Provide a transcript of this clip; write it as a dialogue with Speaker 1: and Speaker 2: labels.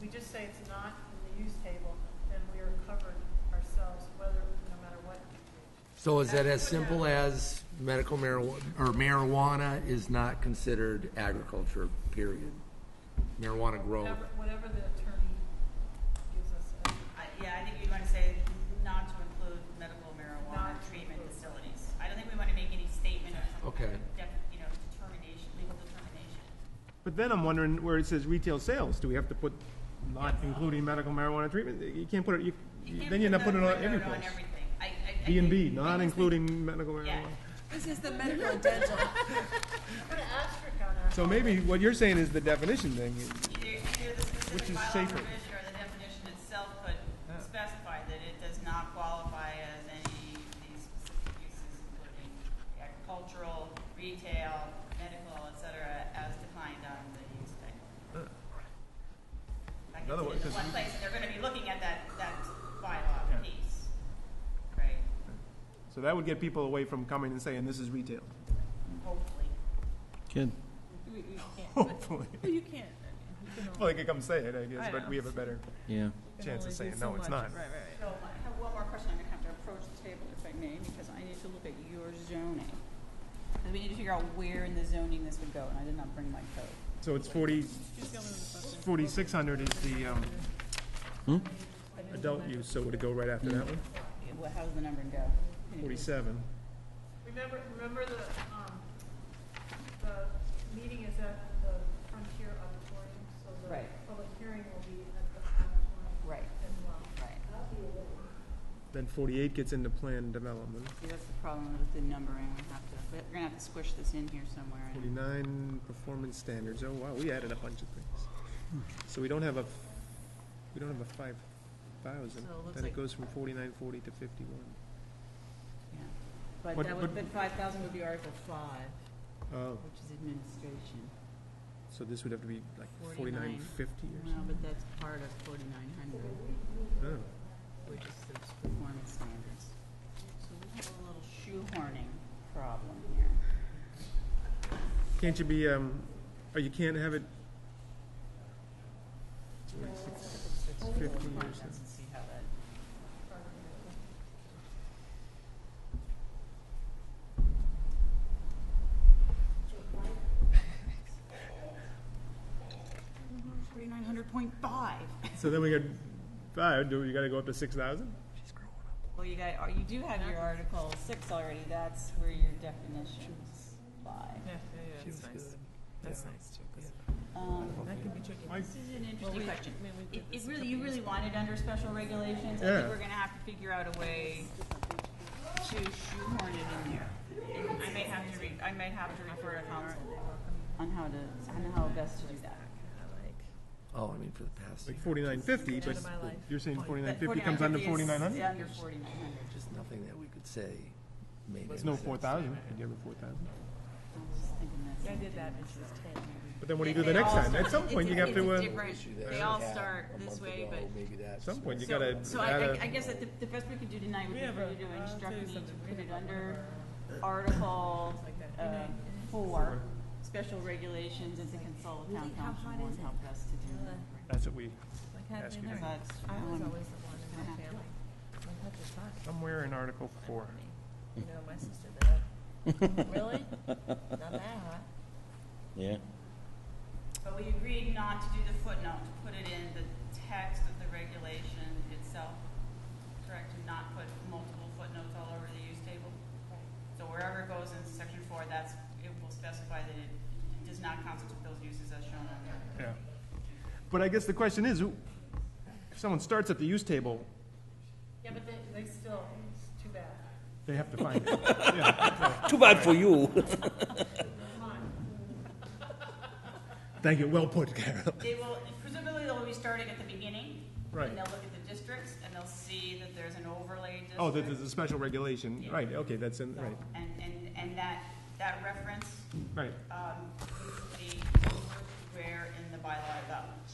Speaker 1: we just say it's not in the use table, then we are covered ourselves, whether, no matter what.
Speaker 2: So is that as simple as medical marijuana, or marijuana is not considered agriculture, period? Marijuana grow,
Speaker 1: Whatever, whatever the attorney gives us. as-
Speaker 3: I- Yeah, I think we want to say not to include medical marijuana
Speaker 1: Not to
Speaker 3: treatment
Speaker 1: include.
Speaker 3: facilities. I don't think we want to make any statement or some kind
Speaker 2: Okay.
Speaker 3: of, def- you know, determination, legal determination.
Speaker 4: But then I'm wondering where it says retail sales, do we have to put not including medical marijuana treatment? You can't put it, you,
Speaker 3: You can't
Speaker 4: then you're not
Speaker 3: put the
Speaker 4: putting it on
Speaker 3: word
Speaker 4: every
Speaker 3: on
Speaker 4: place.
Speaker 3: everything. I- I- I think-
Speaker 4: B and B,
Speaker 3: I
Speaker 4: not
Speaker 3: just think-
Speaker 4: including medical
Speaker 3: Yeah.
Speaker 4: marijuana.
Speaker 5: This is the medical and dental.
Speaker 1: Put an asterisk on that.
Speaker 4: So maybe what you're saying is the definition thing.
Speaker 3: Either, either the
Speaker 4: Which
Speaker 3: specific
Speaker 4: is
Speaker 3: bylaw
Speaker 4: safer.
Speaker 3: provision or the definition itself could specify that it does not qualify as any of these specific uses, including agricultural, retail, medical, et cetera, as defined on the use table. Like
Speaker 6: Another way-
Speaker 3: it's in
Speaker 6: 'cause
Speaker 3: one
Speaker 6: you-
Speaker 3: place, and they're gonna be looking at that, that bylaw
Speaker 4: Yeah.
Speaker 3: piece, right?
Speaker 4: So that would get people away from coming and saying, this is retail.
Speaker 3: Hopefully.
Speaker 6: Good.
Speaker 5: We, we can't.
Speaker 4: Hopefully.
Speaker 5: Well, you can't. You can
Speaker 4: Well,
Speaker 5: only-
Speaker 4: they could come say it, I guess,
Speaker 5: I
Speaker 4: but
Speaker 5: know.
Speaker 4: we have a better
Speaker 6: Yeah.
Speaker 5: you can
Speaker 4: chance of
Speaker 5: only do
Speaker 4: saying,
Speaker 5: so
Speaker 4: no, it's not.
Speaker 5: much." Right, right,
Speaker 3: So,
Speaker 5: right.
Speaker 3: I have one more question. I'm gonna have to approach the table if I may, because I need to look at your zoning. Because we need to figure out where in the zoning this would go, and I did not bring my code.
Speaker 4: So it's forty,
Speaker 5: She's the only one with questions.
Speaker 4: forty-six hundred is the, um, adult use, so would it go right after that one?
Speaker 3: Yeah, Well, how's the numbering go?
Speaker 4: Forty-seven.
Speaker 1: Remember, remember the, um, the meeting is at the Frontier Auditorium, so the
Speaker 3: Right.
Speaker 1: public hearing will be at the auditorium
Speaker 3: Right,
Speaker 1: as well.
Speaker 3: right.
Speaker 4: Then forty-eight gets into plan development.
Speaker 3: See, that's the problem with the numbering. We have to, we're gonna have to squish this in here somewhere. and-
Speaker 4: Forty-nine, performance standards, oh wow, we added a bunch of things. So we don't have a, we don't have a five thousand,
Speaker 5: So it looks
Speaker 4: then
Speaker 5: like-
Speaker 4: it goes from forty-nine forty to fifty-one.
Speaker 3: yeah. But
Speaker 4: But-
Speaker 3: that would,
Speaker 4: but-
Speaker 3: but five thousand would be Article five,
Speaker 4: Oh,
Speaker 3: which is administration.
Speaker 4: so this would have to be like
Speaker 3: 49.
Speaker 4: forty-nine fifty or
Speaker 3: No,
Speaker 4: something?
Speaker 3: but that's part of forty-nine hundred,
Speaker 4: Oh.
Speaker 3: which is the performance standards. So we have a little shoehorning problem here.
Speaker 4: Can't you be, um, or you can't have it,
Speaker 3: Let's do a
Speaker 4: Fifteen
Speaker 3: contest
Speaker 4: percent.
Speaker 3: and see how that. Forty-nine hundred point five.
Speaker 4: so then we got five, do, you gotta go up to six thousand?
Speaker 3: Well, you got, you do have your Article six already, that's where your definitions lie.
Speaker 5: Yeah, yeah, yeah, that's nice. That's nice too. 'cause
Speaker 3: Um,
Speaker 5: That could be tricky.
Speaker 4: Why-
Speaker 3: This is an
Speaker 5: Well,
Speaker 3: interesting
Speaker 5: we-
Speaker 3: question.
Speaker 5: I mean, we
Speaker 3: It,
Speaker 5: did
Speaker 3: it
Speaker 5: this a
Speaker 3: really,
Speaker 5: couple
Speaker 3: you
Speaker 5: years
Speaker 3: really
Speaker 5: ago.
Speaker 3: want it under special regulations, I
Speaker 4: Yeah.
Speaker 3: think we're gonna have to figure out a way to shoehorn it in there. And I may have to re, I may have to refer to council on how to, on how best to do that.
Speaker 2: oh, I mean, for the past,
Speaker 4: Like forty-nine fifty, but
Speaker 5: of my life.
Speaker 4: you're saying forty-nine
Speaker 3: But
Speaker 4: fifty comes under
Speaker 3: 4950 is
Speaker 4: forty-nine hundred?
Speaker 3: Under forty-nine hundred.
Speaker 2: just nothing that we could say made
Speaker 4: There's
Speaker 2: any
Speaker 4: no
Speaker 2: sense.
Speaker 4: four thousand, could you have a four thousand?
Speaker 3: I was just thinking that's.
Speaker 5: I did that when she was ten.
Speaker 4: But then what do you do the next time? At some point, you have to, uh,
Speaker 2: Issue that
Speaker 3: They
Speaker 2: we
Speaker 3: all
Speaker 2: had
Speaker 3: start
Speaker 2: a
Speaker 3: this
Speaker 2: month
Speaker 3: way,
Speaker 2: ago,
Speaker 3: but.
Speaker 2: Maybe that's.
Speaker 4: some point, you
Speaker 3: So-
Speaker 4: gotta
Speaker 3: So I,
Speaker 4: add
Speaker 3: I,
Speaker 4: a.
Speaker 3: I guess that the, the best we could do tonight would
Speaker 5: We
Speaker 3: be
Speaker 5: have
Speaker 3: for
Speaker 5: a- uh,
Speaker 3: you to
Speaker 5: I'll
Speaker 3: instruct
Speaker 5: tell you
Speaker 3: me to
Speaker 5: something. We
Speaker 3: put it
Speaker 5: have one of
Speaker 3: under Article, uh, four, special regulations and to consult with town
Speaker 5: Really? How
Speaker 3: council
Speaker 5: hot
Speaker 3: on
Speaker 5: is it?
Speaker 3: how best to do that.
Speaker 4: That's what we,
Speaker 5: Like, how
Speaker 4: Ask
Speaker 5: did
Speaker 4: you
Speaker 5: they
Speaker 4: to-
Speaker 5: know?
Speaker 3: That's
Speaker 5: I was
Speaker 3: one.
Speaker 5: always the one in my family. Like, what the fuck?
Speaker 4: somewhere in Article four.
Speaker 5: You know, my sister did that. Really? Not that hot.
Speaker 6: Yeah.
Speaker 3: But we agreed not to do the footnote, to put it in the text of the regulation itself, correct? And not put multiple footnotes all over the use table? So wherever it goes in section four, that's, it will specify that it does not constitute those uses as shown on there.
Speaker 4: Yeah. But I guess the question is, who- if someone starts at the use table,
Speaker 1: Yeah, but they, they still, it's too bad.
Speaker 4: they have to find it. Yeah.
Speaker 6: Too bad for you.
Speaker 1: Come on.
Speaker 4: Thank you, well put, Carol.
Speaker 3: They will, presumably they'll be starting at the beginning.
Speaker 4: Right.
Speaker 3: And they'll look at the districts and they'll see that there's an overlay district.
Speaker 4: Oh, that is a special regulation,
Speaker 3: Yeah.
Speaker 4: right, okay, that's in, right,
Speaker 3: And, and, and that, that reference,
Speaker 4: right.
Speaker 3: um, is the, where in the bylaw about